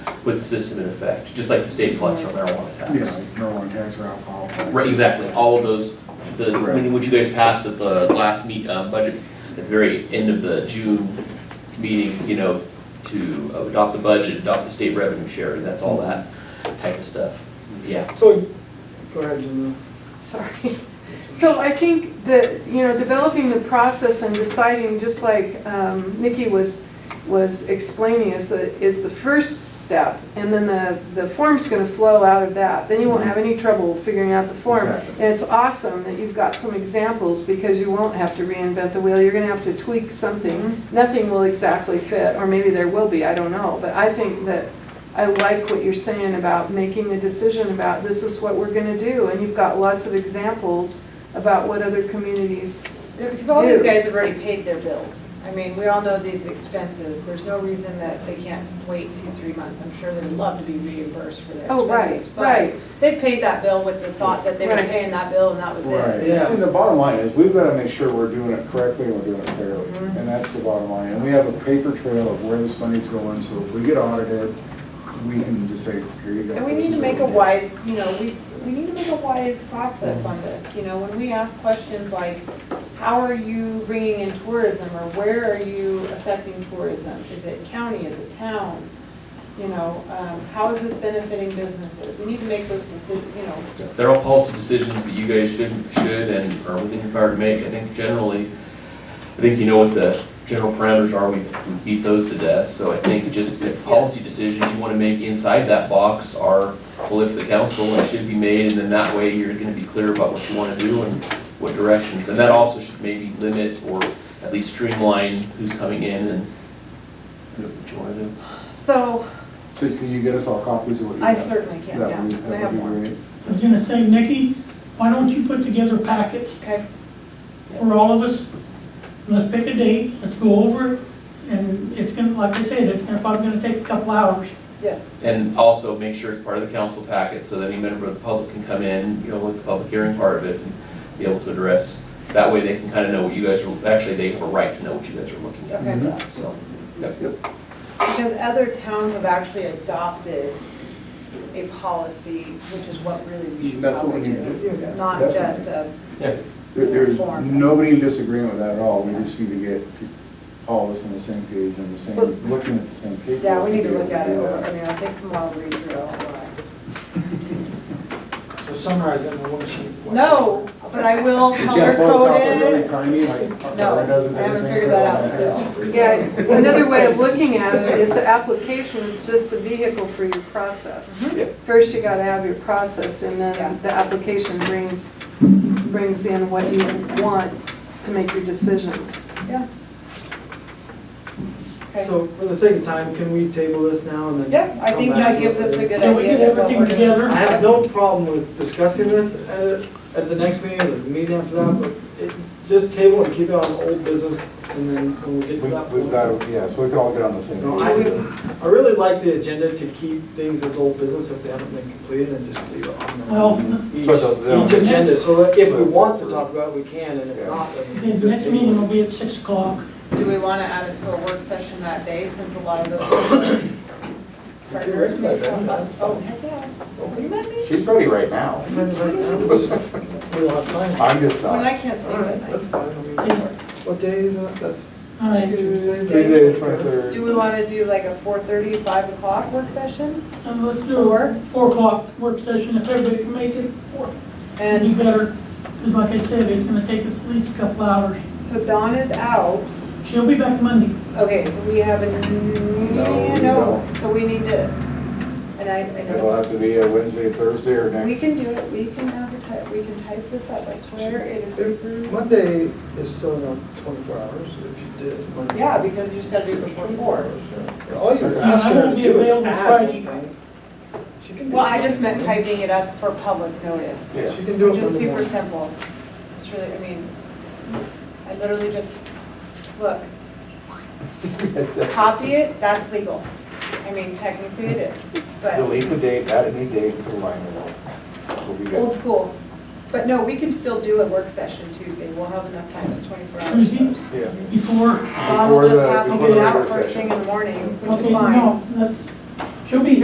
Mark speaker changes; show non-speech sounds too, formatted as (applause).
Speaker 1: with the system in effect, just like the state collection on marijuana
Speaker 2: Yeah, like
Speaker 1: tax.
Speaker 2: marijuana tax or alcohol. tax.
Speaker 1: Right, exactly, all of those, the, when, when you guys passed at the last meet, uh, budget, at the very end of the June meeting, you know, to adopt the budget, adopt the state revenue share, and that's all that type of stuff, yeah.
Speaker 3: So, go ahead, Jim.
Speaker 4: Sorry. So I think that, you know, developing the process and deciding, just like um, Nikki was, was explaining, is the, is the first step. And then the, the form's gonna flow out of that. Then you won't have any trouble figuring out the form.
Speaker 2: Exactly.
Speaker 4: And it's awesome that you've got some examples because you won't have to reinvent the wheel. You're gonna have to tweak something. Nothing will exactly fit, or maybe there will be, I don't know. But I think that I like what you're saying about making a decision about this is what we're gonna do, and you've got lots of examples about what other communities,
Speaker 5: Because all these
Speaker 4: Dude.
Speaker 5: guys have already paid their bills. I mean, we all know these expenses. There's no reason that they can't wait two, three months. I'm sure they would love to be reimbursed for their
Speaker 4: Oh, right,
Speaker 5: expenses.
Speaker 4: right.
Speaker 5: But they paid that bill with the thought that they were
Speaker 4: Right.
Speaker 5: paying that bill and that was
Speaker 2: Right,
Speaker 5: it.
Speaker 3: Yeah.
Speaker 2: and the bottom line is, we've gotta make sure we're doing it correctly and we're doing it fairly,
Speaker 5: Mm-hmm.
Speaker 2: and that's the bottom line. And we have a paper trail of where this money's going, so if we get audited, we can just say, here you go.
Speaker 5: And we
Speaker 2: this
Speaker 5: need to
Speaker 2: is
Speaker 5: make a
Speaker 2: what we did."
Speaker 5: wise, you know, we, we need to make a wise process on this. You know, when we ask questions like, how are you bringing in tourism or where are you affecting tourism? Is it county, is it town? You know, um, how is this benefiting businesses? We need to make those decisions, you know,
Speaker 1: They're all policy decisions that you guys should, should and are within your power to make. I think generally, I think you know what the general parameters are, we we beat those to death. So I think it just the policy decisions you want to make inside that box are fully up to the council and should be made. And then that way, you're going to be clear about what you want to do and what directions. And that also should maybe limit or at least streamline who's coming in and what you want to do.
Speaker 5: So,
Speaker 2: So can you get us all copies of what you
Speaker 5: I
Speaker 2: have?
Speaker 5: certainly can,
Speaker 2: That
Speaker 5: yeah,
Speaker 2: would-
Speaker 5: I
Speaker 2: That
Speaker 5: have
Speaker 2: would
Speaker 5: one.
Speaker 2: be great.
Speaker 6: I was gonna say, Nikki, why don't you put together packets
Speaker 5: Okay,
Speaker 6: for all of us? Let's pick a date, let's go over it, and it's gonna, like I said, it's gonna, probably gonna take a couple hours.
Speaker 5: yes,
Speaker 1: And also make sure it's part of the council packet, so that any member of the public can come in, you know, with the public hearing part of it, and be able to address. That way they can kind of know what you guys are, actually, they have a right to know what you guys are looking at
Speaker 5: Okay.
Speaker 1: for
Speaker 2: Mm-hmm.
Speaker 1: that, so. yep, yep.
Speaker 5: because other towns have actually adopted a policy, which is what really we should
Speaker 2: That's what we
Speaker 5: probably
Speaker 2: need to do, yeah,
Speaker 5: do. Not
Speaker 2: definitely.
Speaker 5: just a,
Speaker 2: There- There's
Speaker 5: Form.
Speaker 2: nobody in disagreement with that at all, we just need to get all of us on the same page and the same,
Speaker 5: But-
Speaker 2: looking at the same page.
Speaker 5: yeah, we need
Speaker 2: be
Speaker 5: to
Speaker 2: able
Speaker 5: look at it,
Speaker 2: do
Speaker 5: over.
Speaker 2: that.
Speaker 5: I mean, I'll take some while to read through all of that.
Speaker 3: So summarize it in one sheet.
Speaker 5: No, but I will
Speaker 2: You
Speaker 5: color
Speaker 2: can't
Speaker 5: code
Speaker 2: photocopy it really
Speaker 5: it.
Speaker 2: tiny, like,
Speaker 5: No,
Speaker 2: Tara does with
Speaker 5: I haven't
Speaker 2: everything
Speaker 5: figured
Speaker 2: for
Speaker 5: that out
Speaker 2: all
Speaker 5: still.
Speaker 2: that.
Speaker 4: yeah, another way of looking at it is the application is just the vehicle for your process. First, you gotta have your process, and
Speaker 5: Yeah.
Speaker 4: then the application brings, brings in what you want to make your decisions.
Speaker 5: Yeah. Okay.
Speaker 3: So for the sake of time, can we table this now and then?
Speaker 5: Yeah, I think
Speaker 3: come back
Speaker 5: that
Speaker 3: to it
Speaker 5: gives us a
Speaker 3: later?
Speaker 5: good idea.
Speaker 6: Yeah, we get
Speaker 5: of what
Speaker 6: everything
Speaker 5: we're doing.
Speaker 6: together.
Speaker 3: I have no problem with discussing this at, at the next meeting, or the meeting after that, but it, just table and keep it on old business, and then when we get to
Speaker 2: We-
Speaker 3: that
Speaker 2: We've got,
Speaker 3: point.
Speaker 2: to- yeah, so we can all get on the same
Speaker 3: No,
Speaker 2: page.
Speaker 3: I, I really like the agenda to keep things as old business if they haven't been completed, and just leave it on there.
Speaker 5: Oh.
Speaker 6: Well,
Speaker 3: Each,
Speaker 2: So the- the-
Speaker 3: each agenda, so that if we want to talk about it, we can, and if not, then we
Speaker 6: the
Speaker 3: just
Speaker 6: next
Speaker 3: table it.
Speaker 6: meeting will be at six o'clock.
Speaker 5: Do we want to add it to a work session that day since a lot of those partners?
Speaker 2: ready by then.
Speaker 5: Oh, heck yeah. You might be.
Speaker 2: She's ready right now.
Speaker 3: We'll have time.
Speaker 2: I'm just uh, not.
Speaker 5: When I can't sleep at night.
Speaker 3: That's fine. I mean,
Speaker 6: Okay,
Speaker 3: What day is that? That's
Speaker 6: All right,
Speaker 2: Tuesday,
Speaker 3: Tuesday.
Speaker 2: the twenty-third.
Speaker 5: Do we want to do like a 4:30, 5 o'clock work session?
Speaker 6: and uh, let's do
Speaker 5: Four?
Speaker 6: a four o'clock work session, if everybody can make it, four. And you
Speaker 5: And
Speaker 6: better, because like I said, it's gonna take us at least a couple hours.
Speaker 5: so Dawn is out.
Speaker 6: She'll be back Monday.
Speaker 5: Okay, so we have a,
Speaker 2: No, we
Speaker 5: no,
Speaker 2: don't.
Speaker 5: so we need to, and I, I
Speaker 2: It'll
Speaker 5: know,
Speaker 2: have to be a Wednesday, Thursday, or next.
Speaker 5: we can do it, we can advertise, we can type this up, I swear, it is super.
Speaker 3: Monday is still not twenty-four hours, if you did Monday.
Speaker 5: Yeah, because you just gotta do it before four.
Speaker 3: Yeah, All you're
Speaker 6: I
Speaker 3: asking her to
Speaker 6: won't be
Speaker 3: do is
Speaker 6: available
Speaker 3: add
Speaker 6: Friday.
Speaker 3: one thing. She can do
Speaker 5: Well,
Speaker 3: it
Speaker 5: I just
Speaker 3: Monday.
Speaker 5: meant typing it up for public notice.
Speaker 2: Yeah.
Speaker 3: She can do it
Speaker 5: Just
Speaker 3: Monday
Speaker 5: super
Speaker 3: morning.
Speaker 5: simple. It's really, I mean, I literally just, look,
Speaker 2: It's a-
Speaker 5: copy it, that's legal. I mean, technically it is, but
Speaker 2: (laughs) Delete the date, add a new date, put a line in it. We'll be
Speaker 5: old
Speaker 2: good.
Speaker 5: school. But no, we can still do a work session Tuesday. We'll have enough time, it's twenty-four hours.
Speaker 6: Tuesday?
Speaker 2: Yeah.
Speaker 6: Before,
Speaker 5: Bob will
Speaker 2: Before
Speaker 5: just
Speaker 2: the-
Speaker 5: have to
Speaker 2: before
Speaker 5: get
Speaker 2: the
Speaker 5: out
Speaker 2: work
Speaker 5: first
Speaker 2: session.
Speaker 5: thing in the morning, which is
Speaker 6: okay,
Speaker 5: fine.
Speaker 6: no, that- she'll be here.